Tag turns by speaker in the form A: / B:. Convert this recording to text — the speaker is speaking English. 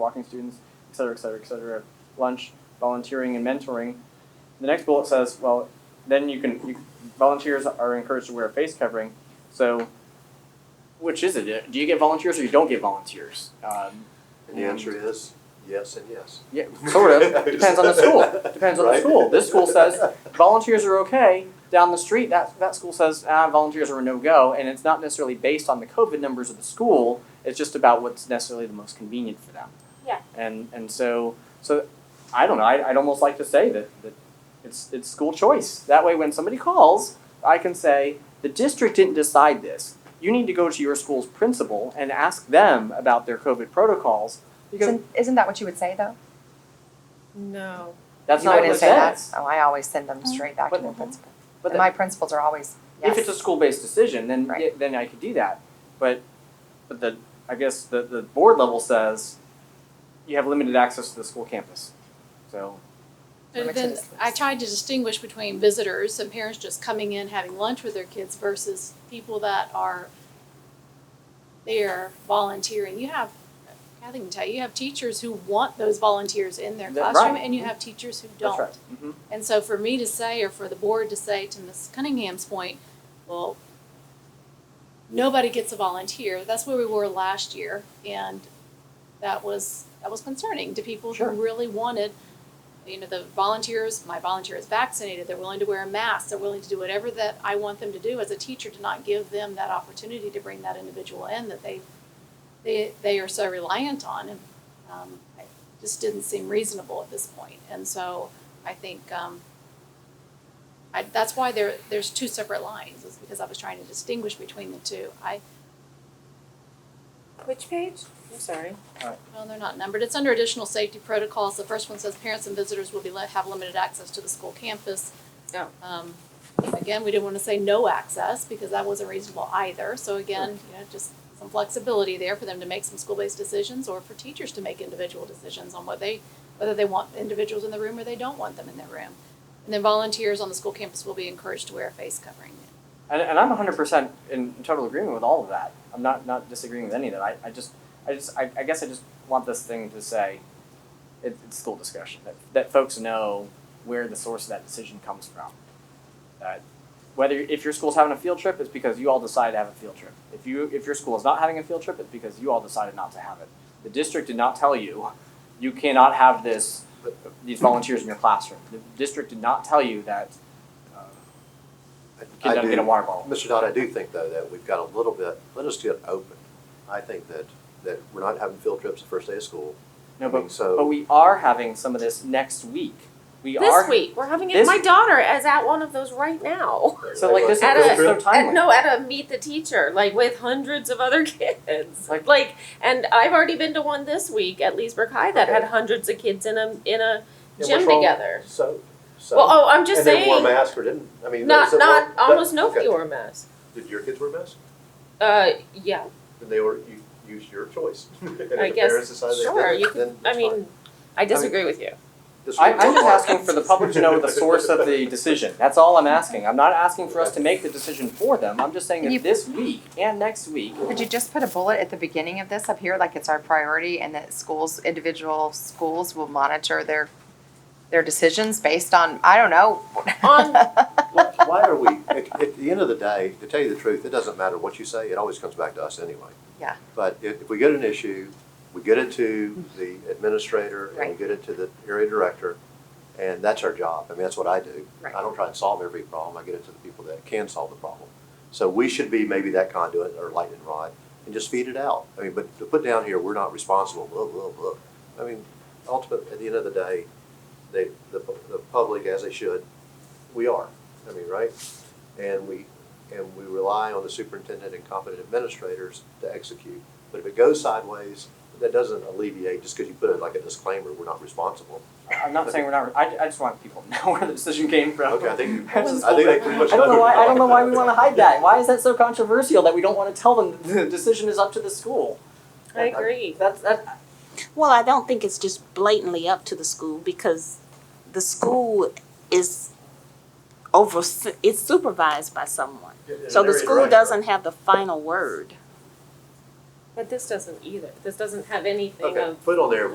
A: walking students, et cetera, et cetera, et cetera, lunch, volunteering, and mentoring. The next bullet says, well, then you can, you, volunteers are encouraged to wear a face covering. So, which is it? Do you get volunteers or you don't get volunteers? Um,
B: And the answer is yes and yes.
A: yeah, sort of. Depends on the school. Depends on the
B: Right?
A: school. This school says volunteers are okay. Down the street, that that school says ah, volunteers are a no go, and it's not necessarily based on the COVID numbers of the school. It's just about what's necessarily the most convenient for them.
C: Yeah.
A: And and so so, I don't know. I, I'd almost like to say that that it's it's school choice. That way, when somebody calls, I can say the district didn't decide this. You need to go to your school's principal and ask them about their COVID protocols because
D: Isn't, isn't that what you would say though?
E: No.
A: that's
D: you
A: not what
D: wouldn't
A: it
D: say
A: says.
D: that. Oh, I always send them straight back
A: But-
D: to the principal.
A: But
D: and my principals are always yes.
A: if it's a school-based decision, then
D: Right.
A: yeah, then I could do that. But but the I guess the, the board level says you have limited access to the school campus. So
D: That
E: And
D: makes
E: then
D: sense.
E: I tried to distinguish between visitors and parents just coming in, having lunch with their kids versus people that are there volunteering. You have, Kathy can tell you, you have teachers who want those volunteers in their
A: That-
E: classroom
A: right.
E: and you have teachers who
A: that's
E: don't.
A: right. hmm
E: And so for me to say, or for the board to say to Ms. Cunningham's point, well, nobody gets a volunteer, that's where we were last year, and that was, that was concerning to people who
A: Sure.
E: really wanted, you know, the volunteers, my volunteer is vaccinated, they're willing to wear a mask, they're willing to do whatever that I want them to do as a teacher, to not give them that opportunity to bring that individual in that they, they, they are so reliant on, and, um, I just didn't seem reasonable at this point, and so, I think um, I, that's why there there's two separate lines. Is because I was trying to distinguish between the two. I
C: Which page? I'm sorry.
E: well, they're not numbered. It's under additional safety protocols. The first one says parents and visitors will be let, have limited access to the school campus.
C: Oh.
E: Um, again, we didn't want to say no access because that wasn't reasonable either. So again, you know, just some flexibility there for them to make some school-based decisions or for teachers to make individual decisions on what they whether they want individuals in the room or they don't want them in their room. And then volunteers on the school campus will be encouraged to wear a face covering.
A: And, and I'm 100 percent in total agreement with all of that. I'm not not disagreeing with any of that. I, I just I just I, I guess I just want this thing to say it, it's school discussion that that folks know where the source of that decision comes from. Uh, whether if your school's having a field trip, it's because you all decided to have a field trip. If you if your school is not having a field trip, it's because you all decided not to have it. The district did not tell you you cannot have this these volunteers in your classroom. The district did not tell you that uh,
B: I
A: kid doesn't
B: do-
A: get a water bottle.
B: Mr. Dodd, I do think though that we've got a little bit, let us get open. I think that, that we're not having field trips the first day of school.
A: No,
B: I mean,
A: but
B: so-
A: but we are having some of this next week. We are
C: This week, we're having it,
A: this-
C: my daughter is at one of those right now.
A: so like this is
C: At
A: this
C: a-
A: is so timely.
C: At, no, at a meet the teacher, like with hundreds of other kids.
A: Like-
C: Like, and I've already been to one this week at Leesburg High that had hundreds of kids in a in a
B: Yeah,
C: gym
B: what's wrong?
C: together.
B: So, so.
C: Well, oh, I'm just
B: And they wore
C: saying,
B: masks or didn't, I mean.
C: not
B: those that
C: not
B: wore- that-
C: almost nobody
B: okay.
C: wore a mask.
B: Did your kids wear masks?
C: Uh, yeah,
B: Then they were, you, use your choice. And if
C: I
B: the
C: guess-
B: parents decide they
C: sure,
B: didn't,
C: you could-
B: then
C: I
B: it's fine.
C: mean, I disagree with you.
B: This
A: I,
B: week
A: I'm
B: we're
A: just
B: fine.
A: asking for the public to know the source of the decision. That's all I'm asking. I'm not asking for us to make the decision for them. I'm just saying
D: You-
A: that this week and next week.
D: Could you just put a bullet at the beginning of this up here, like it's our priority, and that schools, individual schools will monitor their, their decisions based on, I don't know.
C: On-
B: Why why are we, at, at the end of the day, to tell you the truth, it doesn't matter what you say, it always comes back to us anyway.
D: Yeah.
B: But if, if we get an issue, we get it to the administrator and we
D: Right.
B: get it to the area director, and that's our job. I mean, that's what I do.
D: Right.
B: I don't try and solve every problem, I get it to the people that can solve the problem. So we should be maybe that conduit or lightning rod and just feed it out. I mean, but to put down here, we're not responsible, blah, blah, blah. I mean, ultimately, at the end of the day, they, the, pu- the public, as they should, we are, I mean, right? And we, and we rely on the superintendent and competent administrators to execute. But if it goes sideways, that doesn't alleviate, just because you put it like a disclaimer, we're not responsible.
A: I'm not saying we're not. I, I just want people to know where the decision came from.
B: Okay, I think,
A: That's just
B: I think they pretty
A: I
B: much.
A: don't know why. I don't know why we want to hide that. Why is that so controversial that we don't want to tell them the decision is up to the school?
C: I agree.
A: That's that.
F: Well, I don't think it's just blatantly up to the school because the school is over, it's supervised by someone. So the school doesn't have the final word.
C: But this doesn't either. This doesn't have anything
B: Okay,
C: of
B: put on there,